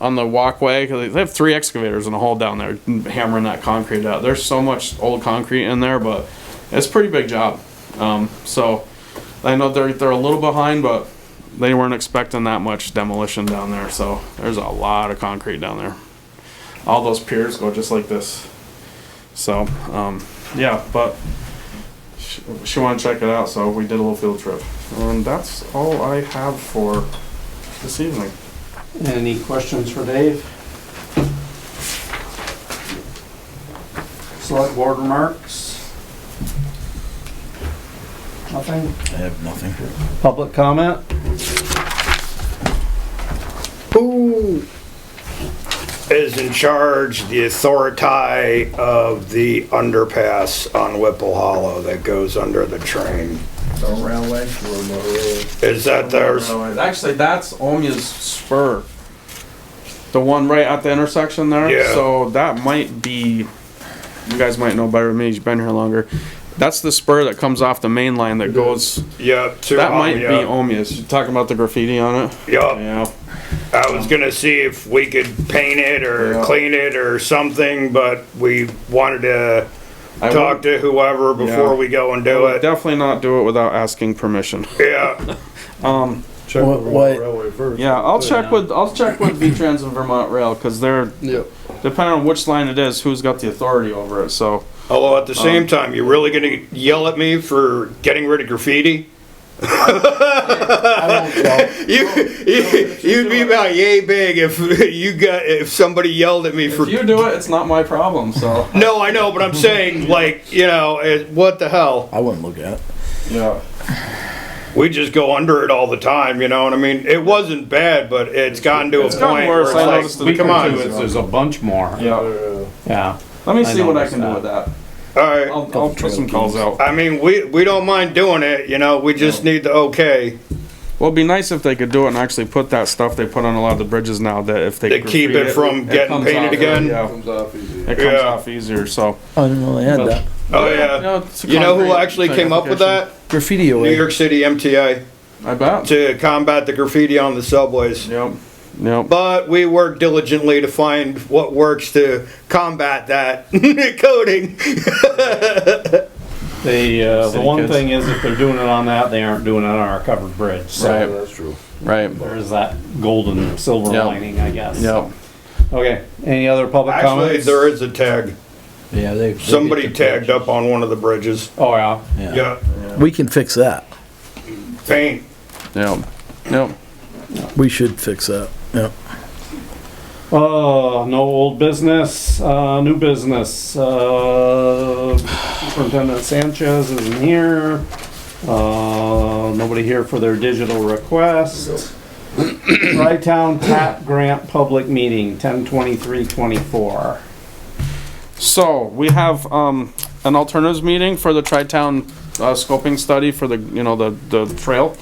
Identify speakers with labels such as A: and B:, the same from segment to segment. A: on the walkway because they have three excavators in a hole down there hammering that concrete out. There's so much old concrete in there, but it's a pretty big job. Um, so I know they're they're a little behind, but they weren't expecting that much demolition down there. So there's a lot of concrete down there. All those piers go just like this. So um, yeah, but she, she wanted to check it out, so we did a little field trip, and that's all I have for this evening.
B: Any questions for Dave? Select board remarks? Nothing?
C: I have nothing.
B: Public comment?
D: Who is in charge, the authority of the underpass on Whipple Hollow that goes under the train?
C: The railway, railroad.
D: Is that there's,
A: Actually, that's Omia's spur. The one right at the intersection there.
D: Yeah.
A: So that might be. You guys might know better than me. You've been here longer. That's the spur that comes off the main line that goes.
D: yeah, to,
A: That
D: um,
A: might be
D: yeah,
A: Omia's. You talking about the graffiti on it?
D: yeah.
A: Yeah.
D: I was gonna see if we could paint it or
A: Yeah.
D: clean it or something, but we wanted to
A: I
D: talk to whoever
A: Yeah.
D: before we go and do
A: would
D: it.
A: definitely not do it without asking permission.
D: Yeah,
A: Um,
C: Check
E: What-
C: with
E: what-
C: railway first.
A: Yeah, I'll check with I'll check with V-Trans and Vermont Rail because they're
E: Yep.
A: depending on which line it is, who's got the authority over it. So
D: although Oh, at the same time, you're really gonna yell at me for getting rid of graffiti?
E: I won't yell.
D: You, you you'd be about yay big if you got if somebody yelled at me for.
A: if you do it, it's not my problem. So
D: No, I know, but I'm saying like you know it, what the hell?
C: I wouldn't look at it.
A: yeah.
D: We just go under it all the time, you know what I mean? It wasn't bad, but it's gotten to
A: It's
D: a
A: gotten
D: point
A: worse, I
D: where it's
A: noticed
D: like,
A: it
D: come
A: too.
D: on,
A: It's-
E: There's a bunch more.
A: Yeah.
C: Uh,
E: Yeah.
A: Let me
E: I
A: see what I
E: noticed
A: can do
E: that.
A: with that.
D: all right.
A: I'll, I'll put some calls out.
D: I mean, we we don't mind doing it, you know. We just need the okay.
A: Well, it'd be nice if they could do it and actually put that stuff they put on a lot of the bridges now that if they
D: They keep
A: graffiti
D: it from getting
A: comes
D: painted
A: off,
D: again?
A: Yeah,
C: Comes off easy.
A: it comes
D: Yeah.
A: off easier. So
C: I didn't know they had that.
D: Oh yeah. You know who actually came up with that?
C: Graffiti
D: New
C: away.
D: York City MTA
A: I bet.
D: to combat the graffiti on the subways.
A: Yep. Yep.
D: But we work diligently to find what works to combat that coding.
E: The, uh, the
A: City
E: one
A: kids.
E: thing is if they're doing it on that, they aren't doing it on our covered bridge. So
A: Right.
C: That's true.
A: Right.
E: there's that golden silver
A: Yeah.
E: lining, I guess.
A: Yep.
E: Okay, any other public
D: Actually,
E: comments?
D: there is a tag.
C: Yeah, they. they
D: Somebody
C: get the
D: tagged up on one of the bridges.
E: Oh, yeah.
C: Yeah.
D: Yeah,
C: We can fix that.
D: paint.
A: Yep. Yep.
C: We should fix that. Yeah.
E: Oh, no old business, uh, new business, uh, Superintendent Sanchez isn't here. Uh, nobody here for their digital request. Tri-Town TAP Grant Public Meeting, ten twenty-three twenty-four.
A: So we have um, an alternatives meeting for the tri-town uh, scoping study for the you know the the trail.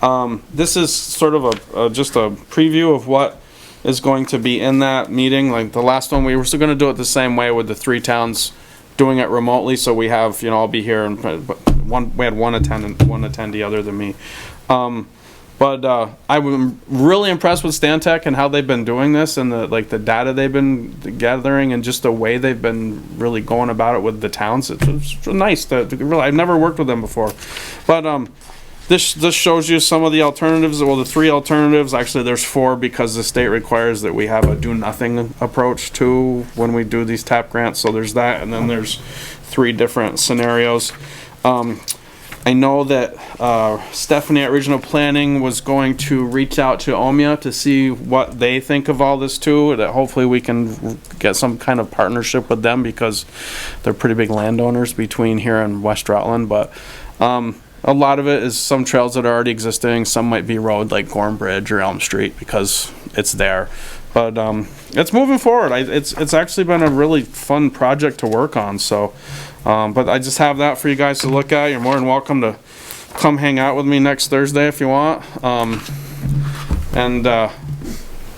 A: Um, this is sort of a, a just a preview of what is going to be in that meeting. Like the last one, we were still going to do it the same way with the three towns doing it remotely. So we have you know I'll be here and but one we had one attendant one attendee other than me. Um, but uh, I'm really impressed with Stantec and how they've been doing this and the like the data they've been gathering and just the way they've been really going about it with the towns. It's, it's nice to, to really. I've never worked with them before, but um, this this shows you some of the alternatives. Well, the three alternatives actually there's four because the state requires that we have a do nothing approach to when we do these tap grants. So there's that, and then there's three different scenarios. Um, I know that uh, Stephanie at Regional Planning was going to reach out to Omia to see what they think of all this too. That hopefully we can get some kind of partnership with them because they're pretty big landowners between here and West Rutland. But um, a lot of it is some trails that are already existing. Some might be road like Gorm Bridge or Elm Street because it's there. But um, it's moving forward. I, it's it's actually been a really fun project to work on. So. Um, but I just have that for you guys to look at. You're more than welcome to come hang out with me next Thursday if you want. Um, and uh,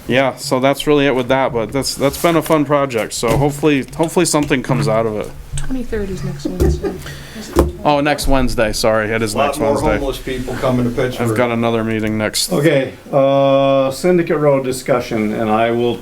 A: yeah, so that's really it with that. But that's that's been a fun project. So hopefully hopefully something comes out of it.
F: 23rd is next Wednesday.
A: Oh, next Wednesday. Sorry, it is
D: A lot
A: next
D: more
A: Wednesday.
D: homeless people coming to Pittsburgh.
A: I've got another meeting next.
E: Okay, uh, Syndicate Road discussion, and I will